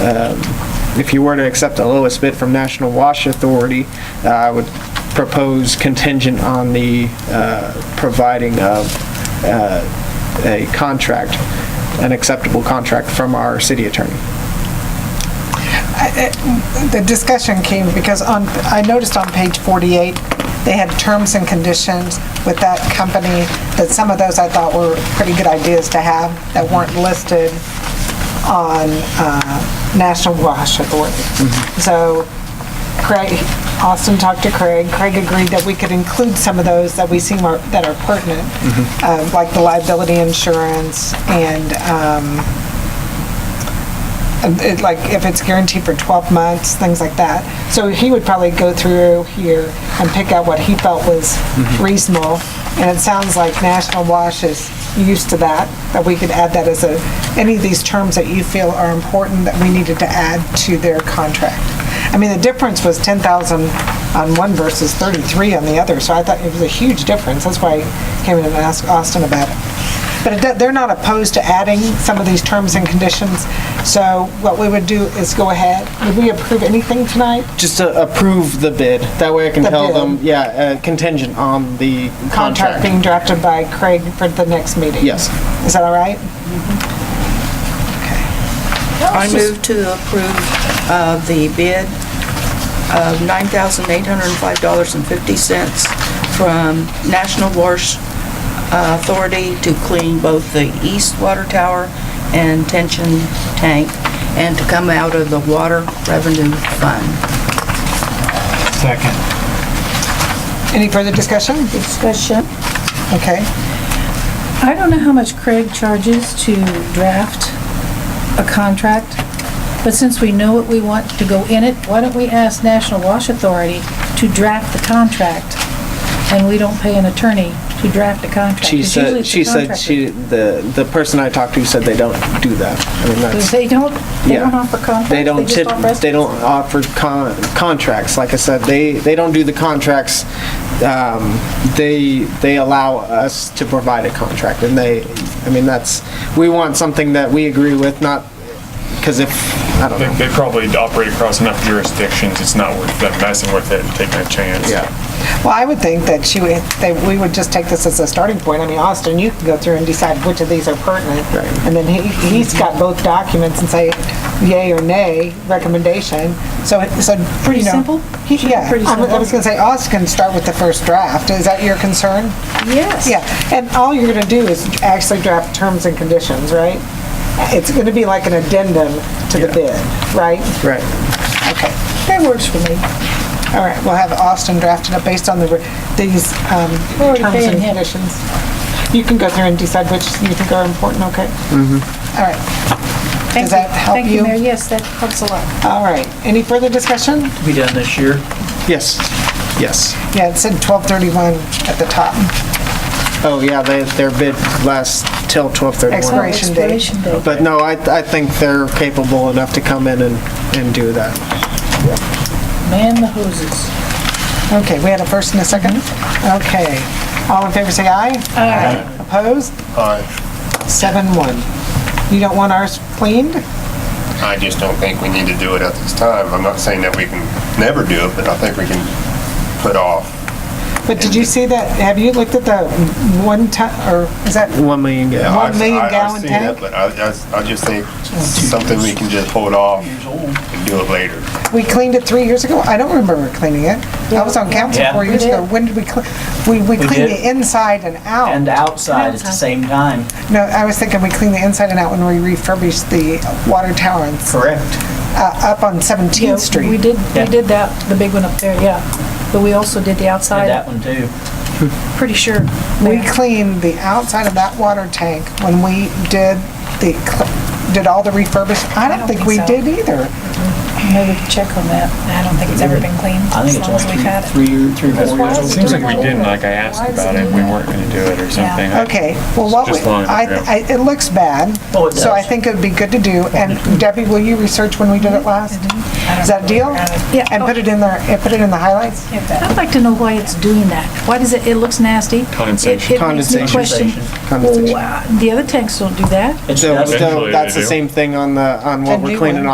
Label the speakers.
Speaker 1: um, if you were to accept the lowest bid from National Wash Authority, uh, I would propose contingent on the uh, providing of uh, a contract, an acceptable contract from our city attorney.
Speaker 2: The discussion came because on, I noticed on page 48, they had terms and conditions with that company, that some of those I thought were pretty good ideas to have that weren't listed on uh, National Wash Authority. So Craig, Austin talked to Craig, Craig agreed that we could include some of those that we seem are, that are pertinent, uh, like the liability insurance and um, it- like if it's guaranteed for 12 months, things like that. So he would probably go through here and pick out what he felt was reasonable. And it sounds like National Wash is used to that, that we could add that as a, any of these terms that you feel are important that we needed to add to their contract. I mean, the difference was 10,000 on one versus 33 on the other, so I thought it was a huge difference. That's why I came in and asked Austin about it. But it do- they're not opposed to adding some of these terms and conditions, so what we would do is go ahead. Would we approve anything tonight?
Speaker 1: Just to approve the bid, that way I can
Speaker 2: The
Speaker 1: tell
Speaker 2: bid.
Speaker 1: them, yeah, uh, contingent on the
Speaker 2: Contract
Speaker 1: contract.
Speaker 2: being drafted by Craig for the next meeting?
Speaker 1: Yes.
Speaker 2: Is that all right?
Speaker 3: I move to approve uh, the bid of $9,805.50 from National Wash uh, Authority to clean both the east water tower and tension tank, and to come out of the water revenue fund.
Speaker 4: Second.
Speaker 2: Any further discussion?
Speaker 5: Discussion.
Speaker 2: Okay.
Speaker 5: I don't know how much Craig charges to draft a contract, but since we know what we want to go in it, why don't we ask National Wash Authority to draft the contract? And we don't pay an attorney to draft a contract.
Speaker 1: She
Speaker 5: 'cause usually
Speaker 1: said,
Speaker 5: it's the
Speaker 1: she said,
Speaker 5: contractor.
Speaker 1: she, the, the person I talked to said they don't do that. I mean, that's.
Speaker 5: They don't, they
Speaker 1: Yeah.
Speaker 5: don't offer contracts?
Speaker 1: They don't,
Speaker 5: just
Speaker 1: tip-
Speaker 5: offer us-
Speaker 1: they don't offer con- contracts, like I said, they, they don't do the contracts. Um, They, they allow us to provide a contract, and they, I mean, that's, we want something that we agree with, not, because if, I don't know,
Speaker 4: They probably operate across enough jurisdictions, it's not worth them messing with it and taking a chance.
Speaker 1: yeah.
Speaker 2: Well, I would think that she would, that we would just take this as a starting point. I mean, Austin, you can go through and decide which of these are pertinent.
Speaker 1: Right.
Speaker 2: And then he, he's got both documents and say yay or nay recommendation. So, it- so,
Speaker 5: Pretty
Speaker 2: you know.
Speaker 5: simple?
Speaker 2: He- Yeah,
Speaker 5: Pretty
Speaker 2: I was- I
Speaker 5: simple.
Speaker 2: was gonna say, Austin can start with the first draft. Is that your concern?
Speaker 5: Yes.
Speaker 2: Yeah, and all you're gonna do is actually draft terms and conditions, right? It's gonna be like an addendum to the bid, right?
Speaker 1: Right.
Speaker 2: Okay.
Speaker 5: That works for me.
Speaker 2: All right, we'll have Austin drafted up based on the, re- these um,
Speaker 5: We're already
Speaker 2: terms and
Speaker 5: paying him.
Speaker 2: conditions. You can go through and decide which you think are important, okay? Mm-hmm. All right,
Speaker 5: Thank
Speaker 2: that
Speaker 5: you.
Speaker 2: help
Speaker 5: Thank
Speaker 2: you?
Speaker 5: you, Mayor, yes, that helps a lot.
Speaker 2: all right. Any further discussion?
Speaker 6: be done this year.
Speaker 1: Yes, yes.
Speaker 2: Yeah, it said 1231 at the top.
Speaker 1: Oh, yeah, they, their bid lasts till
Speaker 2: Expiration.
Speaker 1: 12:31.
Speaker 2: date.
Speaker 5: Expiration date.
Speaker 1: But no, I, I think they're capable enough to come in and, and do that.
Speaker 5: Man the hoses.
Speaker 2: Okay, we had a first and a second?
Speaker 5: Mm-hmm.
Speaker 2: Okay. All in favor, say aye. Aye. Opposed? Aye. Seven, one. You don't want ours cleaned?
Speaker 7: I just don't think we need to do it at this time. I'm not saying that we can never do it, but I think we can put off.
Speaker 2: But did you see that, have you looked at the one ton, or is that,
Speaker 1: One million gallons.
Speaker 2: One million
Speaker 7: I- I- I've
Speaker 2: gallon
Speaker 7: seen it,
Speaker 2: tank?
Speaker 7: But I, I- I just think something we can just hold off and do it later.
Speaker 2: we cleaned it three years ago? I don't remember cleaning it. I was on council
Speaker 6: Yeah.
Speaker 2: four
Speaker 6: We
Speaker 2: years ago.
Speaker 5: did.
Speaker 2: When did we, cle- we, we cleaned
Speaker 6: did.
Speaker 2: the inside and
Speaker 6: And
Speaker 2: out.
Speaker 6: outside at the same time.
Speaker 2: No, I was thinking we cleaned the inside and out when we refurbished the water tower and s-
Speaker 6: Correct.
Speaker 2: uh, up on
Speaker 5: Yeah,
Speaker 2: 17th Street.
Speaker 5: We did,
Speaker 6: Yeah.
Speaker 5: we did that, the big one up there, yeah. But we also did the
Speaker 6: Did
Speaker 5: outside,
Speaker 6: that one too.
Speaker 5: pretty sure.
Speaker 2: We
Speaker 5: there.
Speaker 2: cleaned the outside of that water tank when we did the, cl- did all the refurbishment. I don't think we
Speaker 5: so.
Speaker 2: did either.
Speaker 5: Maybe we could check on that. I don't think it's ever been cleaned
Speaker 6: I
Speaker 5: as
Speaker 6: think it's
Speaker 5: long as we've
Speaker 6: only
Speaker 5: had it.
Speaker 6: three, three, three, four
Speaker 5: why
Speaker 6: years
Speaker 5: is
Speaker 6: old.
Speaker 5: it
Speaker 4: Seems like we didn't, like I asked about it, we weren't gonna do it or something. I-
Speaker 2: Okay, well, what, we-
Speaker 4: Just long
Speaker 2: I,
Speaker 4: enough, yeah.
Speaker 2: I- it looks bad.
Speaker 6: Oh, it
Speaker 2: So I
Speaker 6: does. Mm-hmm.
Speaker 2: think it'd be good to do, and Debbie, will you research when we did it last? Is that a deal?
Speaker 5: Yeah.
Speaker 2: And put it in there, and put it in the highlights?
Speaker 5: I'd like to know why it's doing that. Why does it, it looks nasty. It- It
Speaker 4: Condensation.
Speaker 5: makes me
Speaker 1: Condensation.
Speaker 5: question,
Speaker 1: Condensation.
Speaker 5: well, uh, the other tanks don't do that.
Speaker 6: It's
Speaker 1: So,
Speaker 6: dust.
Speaker 4: Eventually
Speaker 1: so
Speaker 4: they
Speaker 1: that's the
Speaker 4: do.
Speaker 1: same thing on the, on what
Speaker 2: Then
Speaker 1: we're
Speaker 2: do
Speaker 1: cleaning
Speaker 2: one.
Speaker 1: off.